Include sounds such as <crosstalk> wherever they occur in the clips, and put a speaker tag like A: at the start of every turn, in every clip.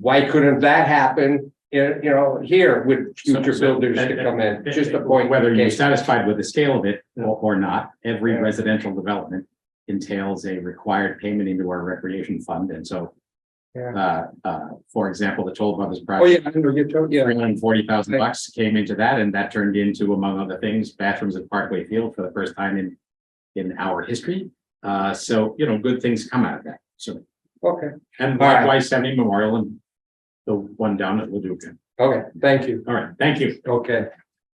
A: why couldn't that happen, you you know, here with future
B: So- so-
A: builders to come in, just a point.
B: Whether you're
A: Okay.
B: satisfied with the scale of it or or not, every
A: Yeah.
B: residential development entails a required payment into our recreation fund, and so. Uh, uh, for example, the Toll Brothers
A: Oh, yeah,
B: project,
A: I know, you're totally, yeah,
B: three hundred and forty thousand
A: Right.
B: bucks came into that, and that turned into, among other things, bathrooms at Parkway Field for the first time in. In our history, uh, so, you know, good things come out of that, so,
A: okay,
B: and
A: All right.
B: likewise, Seventy Memorial and. The one down at Leduca,
A: okay, thank you,
B: all right, thank you.
A: okay.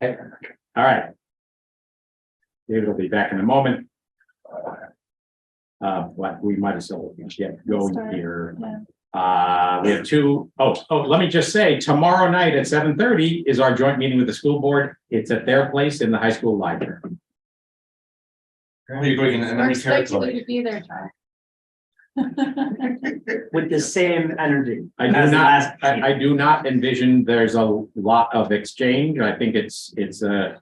B: All right. David will be back in a moment. Uh, but we might as well get going
C: Sorry,
B: here.
C: yeah.
B: Uh, we have two, oh, oh, let me just say, tomorrow night at seven thirty is our joint meeting with the school board. It's at their place in the high school library.
D: Are you going in
C: We're
D: enemy
C: expecting you
D: territory?
C: to be there, John.
E: with the same energy.
B: I do
E: As the
B: not,
E: last
B: I, I do not envision there's a lot of exchange. I think it's, it's uh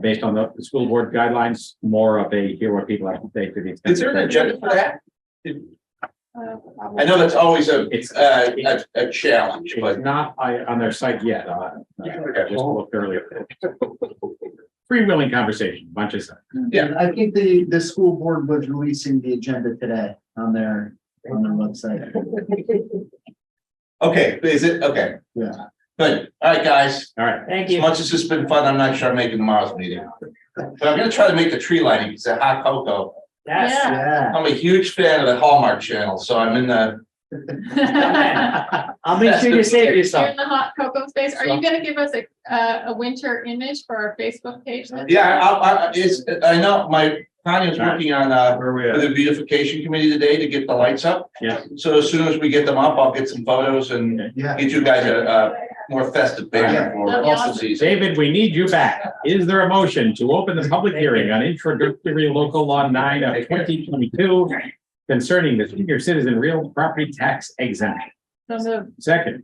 B: based on the the school board guidelines, more of a hear what people have to say to the extent.
D: Is there an
B: that-
D: agenda for that?
C: Uh,
D: I
C: <laughs>
D: know that's always a,
B: It's-
D: uh, a, a challenge, but.
B: It's not I on their site yet. uh, I Just looked earlier. Freewheeling conversation, bunch of stuff.
D: Yeah.
E: I think the, the school board was releasing the agenda today on their, on their website.
D: Okay, is it? Okay.
E: Yeah.
D: Good. All right, guys.
B: All right.
E: Thank
D: As much as it's been fun, I'm not sure I'm making tomorrow's meeting. But I'm gonna try to make the tree lighting. It's a hot cocoa.
C: Yes.
E: Yeah.
D: I'm a huge fan of the Hallmark Channel, so I'm in the,
C: You're
E: <laughs> I'll make sure you save
C: in
E: yourself.
C: the hot cocoa space. Are you gonna give us a, uh, a winter image for our Facebook page?
D: yeah, I, I, it's, I know my, Tanya's working on, uh,
B: Where we
D: for the beautification committee today to get the lights up.
B: Yeah.
D: So as soon as we get them up, I'll get some photos and
E: Yeah.
D: get you guys a, a more festive picture
E: Yeah.
D: for
C: That'd be
D: postal
C: awesome.
D: season.
B: David, we need you back. Is there a motion to open the public hearing on introductory local law nine of twenty twenty-two concerning the senior citizen real property tax exemption?
C: So moved.
B: Second.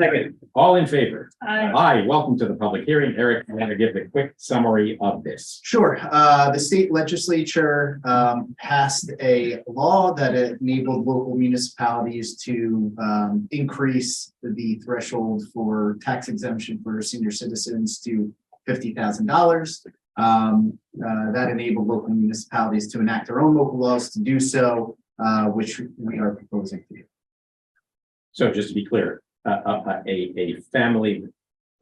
B: Second. All in favor?
C: Aye.
B: Aye. Welcome to the public hearing. Eric, I'm going to give a quick summary of this.
E: Sure. Uh, the state legislature, um, passed a law that enabled local municipalities to, um, increase the threshold for tax exemption for senior citizens to fifty thousand dollars. Um, uh, that enabled local municipalities to enact their own local laws to do so, uh, which we are proposing to do.
B: So just to be clear, a, a, a, a family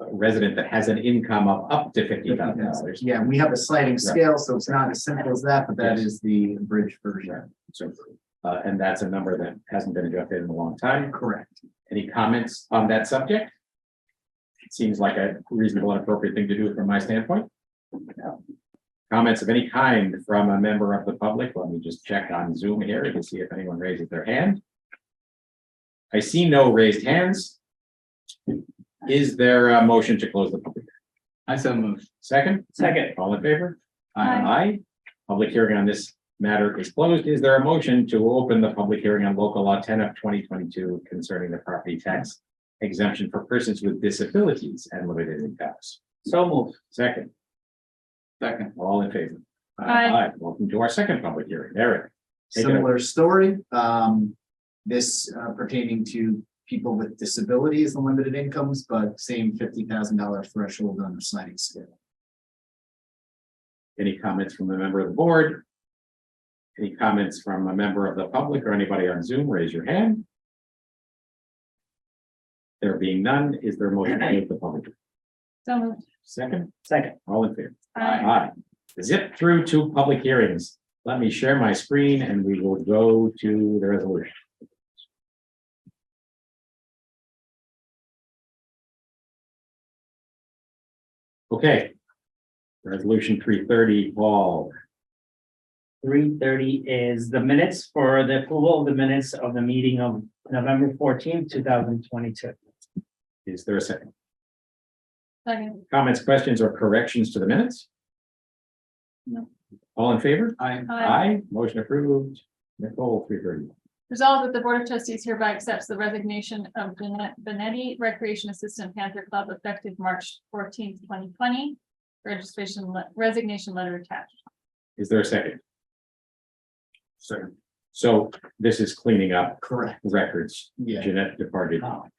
B: resident that has an income of up to fifty thousand dollars.
E: Yeah, we have a sliding scale, so it's not as simple as that, but that
B: Yes.
E: is the abridged version.
B: So, uh, and that's a number that hasn't been adjusted in a long time.
E: Correct.
B: Any comments on that subject? It Seems like a reasonable and appropriate thing to do from my standpoint. Comments of any kind from a member of the public? Let me just check on Zoom here to see if anyone raises their hand. I see no raised hands. Is there a motion to close the public? I so moved. Second? Second. All in favor?
C: Aye.
B: Aye. Public hearing on this matter is closed. Is there a motion to open the public hearing on local law ten of twenty twenty-two concerning the property tax exemption for persons with disabilities and limited incomes? So moved. Second. Second. All in favor? Uh,
C: Aye.
B: Welcome to our second public hearing. Eric, Take it away.
E: Similar story, um, this uh, pertaining to people with disabilities and limited incomes, but same fifty thousand dollar threshold on the sliding scale.
B: any comments from the member of the board? Any comments from a member of the public or anybody on Zoom? Raise your hand. There being none, is there a motion to open the public? hearing?
C: So moved.
B: Second,
E: Second.
B: all in favor?
C: Aye.
B: Aye. Zip through to public hearings. Let me share my screen and we will go to the resolution. Okay. Resolution three thirty, Paul.
F: Three thirty is the minutes for the approval of the minutes of the meeting of November fourteenth, two thousand twenty-two.
B: Is there a second?
C: Second.
B: Comments, questions, or corrections to the minutes?
C: No.
B: All in favor?
C: Aye.
B: Aye. Motion approved. Nicole, three thirty.
C: Resolved that the Board of Trustees hereby accepts the resignation of Jeanette Benetti, Recreation Assistant Panther Club, effective March fourteenth, twenty twenty. Registration, le- resignation letter attached.
B: Is there a second? Second. So this is cleaning up
E: Correct,
B: records.
E: yeah.
B: Jeanette departed.
F: Oh.